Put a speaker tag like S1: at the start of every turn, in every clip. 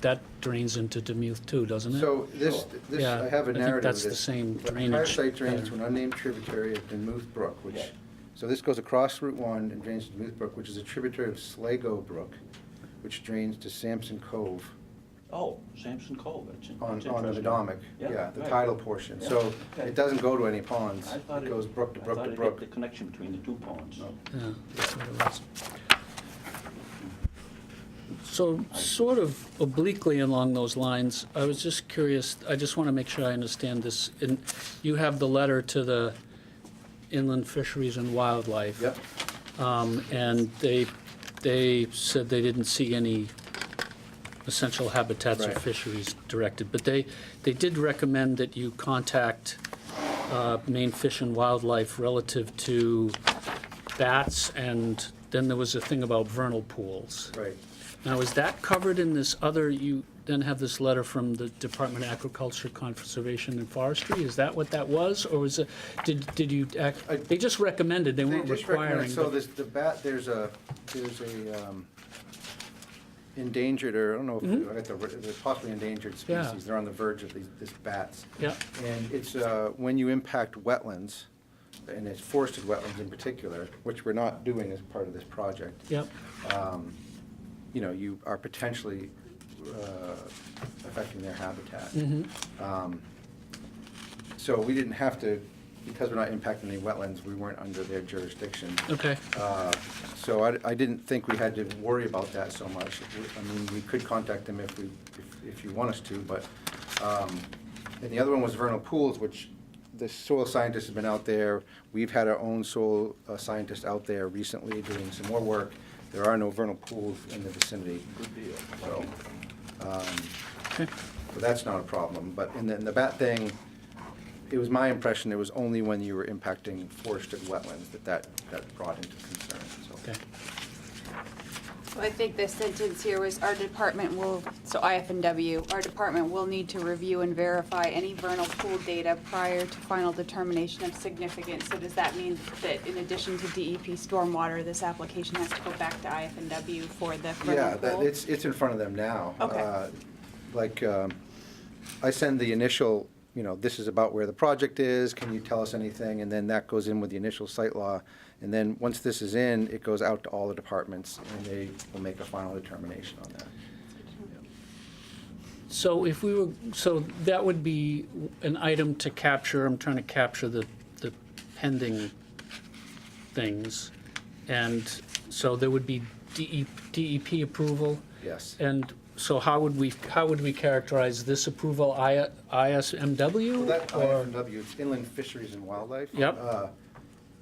S1: that drains into Demuth too, doesn't it?
S2: So this, this,
S1: Yeah,
S2: I have a
S1: I think
S2: narrative of
S1: that's the
S2: this.
S1: same
S2: The Entire
S1: drainage
S2: site drains to
S1: pattern.
S2: an unnamed tributary of Duluth Brook,
S3: Yeah.
S2: which, so this goes across Route One and drains to Duluth Brook, which is a tributary of Sligo Brook, which drains to Sampson Cove
S3: Oh, Sampson Cove, that's in-
S2: on,
S3: that's
S2: on the
S3: interesting.
S2: Potomac.
S3: Yeah,
S2: Yeah, the
S3: right.
S2: tidal portion.
S3: Yeah,
S2: So
S3: okay.
S2: it doesn't go to any ponds.
S3: I thought
S2: It goes brook to
S3: I
S2: brook
S3: thought
S2: to
S3: it
S2: brook.
S3: hit The connection between the two ponds.
S2: No.
S1: Yeah, that's what it was. So sort of obliquely along those lines, I was just curious, I just want to make sure I understand this. And you have the letter to the Inland Fisheries and Wildlife.
S2: Yep,
S1: Um, And they, they said they didn't see any essential habitats or
S2: Right.
S1: fisheries directed. But they, they did recommend that you contact uh, Maine Fish and Wildlife relative to bats, and then there was a thing about vernal pools.
S2: right.
S1: Now, is that covered in this other, you then have this letter from the Department of Agriculture, Conservation, and Forestry? Is that what that was, or was it, did, did you, act-
S2: I-
S1: they just recommended, they
S2: They
S1: weren't
S2: just recommend,
S1: requiring,
S2: so
S1: but
S2: there's the bat, there's a, there's a um, endangered, or I don't know, if I got the, the possibly endangered
S1: Mm-hmm. Yeah.
S2: species, they're on the verge of these, these bats.
S1: Yeah.
S2: And it's, uh, when you impact wetlands, and it's forested wetlands in particular, which we're not doing as part of this project.
S1: Yep,
S2: um, You know, you are potentially uh, affecting their habitat.
S1: mhm,
S2: Um, So we didn't have to, because we're not impacting any wetlands, we weren't under their jurisdiction.
S1: okay,
S2: Uh, So I, I didn't think we had to worry about that so much. We- I mean, we could contact them if we, if- if you want us to, but, um, and the other one was vernal pools, which the soil scientist has been out there. We've had our own soil uh, scientist out there recently doing some more work. There are no vernal pools in the vicinity,
S3: Good deal.
S2: so, um,
S1: okay,
S2: so that's not a problem, but, and then the bat thing, it was my impression it was only when you were impacting forested wetlands that that, that brought into concern, so.
S1: okay.
S4: Well, I think the sentence here was, our department will, so IFNW, our department will need to review and verify any vernal pool data prior to final determination of significance. So does that mean that in addition to DEP stormwater, this application has to go back to IFNW for the
S2: Yeah,
S4: vernal
S2: that,
S4: pool?
S2: it's, it's in front of them now.
S4: Okay.
S2: Uh, Like, um, I send the initial, you know, this is about where the project is, can you tell us anything? And then that goes in with the initial site law, and then, once this is in, it goes out to all the departments, and they will make a final determination on that.
S1: So if we were, so that would be an item to capture, I'm trying to capture the, the pending things. And so there would be E, DEP, DEP approval,
S2: Yes.
S1: And so how would we, how would we characterize this approval, I-
S2: Well,
S1: ISMW?
S2: that
S1: or-
S2: IFMW, it's Inland Fisheries and Wildlife.
S1: Yep.
S2: Uh,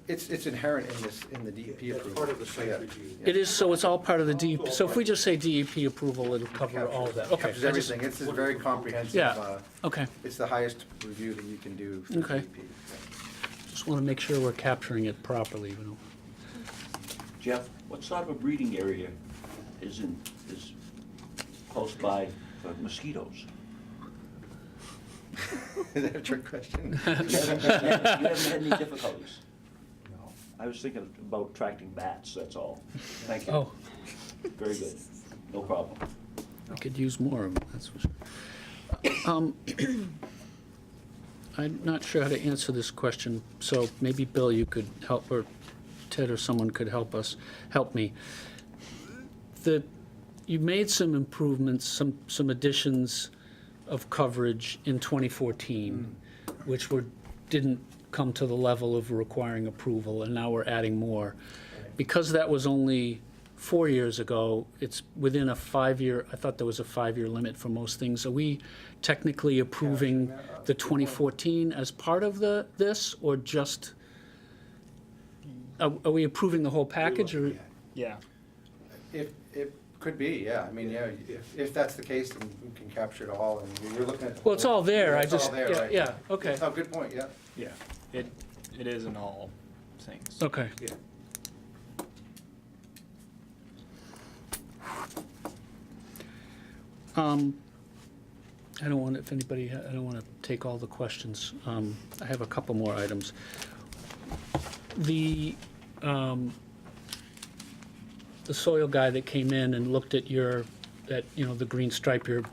S2: It's, it's inherent in this, in the DEP approval.
S5: That's part of the site
S2: Yeah.
S5: review.
S1: It is, so it's all part of the DEP, so if we just say DEP approval, it'll cover all of that, okay.
S2: Captures
S1: I just-
S2: everything, it's a very comprehensive.
S1: Yeah,
S2: uh,
S1: okay,
S2: It's the highest review that you can do for E
S1: Okay.
S2: DEP.
S1: just want to make sure we're capturing it properly, you know.
S3: Jeff, what sort of a breeding area is in, is close by for mosquitoes?
S2: Is that a trick question?
S3: You haven't you haven't had any difficulties?
S5: No.
S3: I was thinking about attracting bats, that's all. Thank you.
S1: Oh,
S3: Very good. No problem.
S1: we could use more of them, that's for sure. Um, I'm not sure how to answer this question, so maybe Bill, you could help, or Ted or someone could help us, help me. The, you made some improvements, some, some additions of coverage in 2014, which were, didn't come to the level of requiring approval, and now we're adding more. Because that was only four years ago, it's within a five-year, I thought there was a five-year limit for most things. Are we technically approving the 2014 as part of the, this, or just, are are we approving the whole package, or?
S6: Yeah.
S2: If, it could be, yeah, I mean, yeah, if, if that's the case, then we can capture it all, and you're looking at. the
S1: Well, it's
S2: whole-
S1: all there, I
S2: It's all
S1: just,
S2: there,
S1: yeah,
S2: right.
S1: yeah, okay,
S2: Oh, good point, yeah.
S6: Yeah. It it is in all things.
S1: okay. Um, I don't want, if anybody, I don't want to take all the questions. Um, I have a couple more items. The, um, the soil guy that came in and looked at your that, you know, the green stripe you're,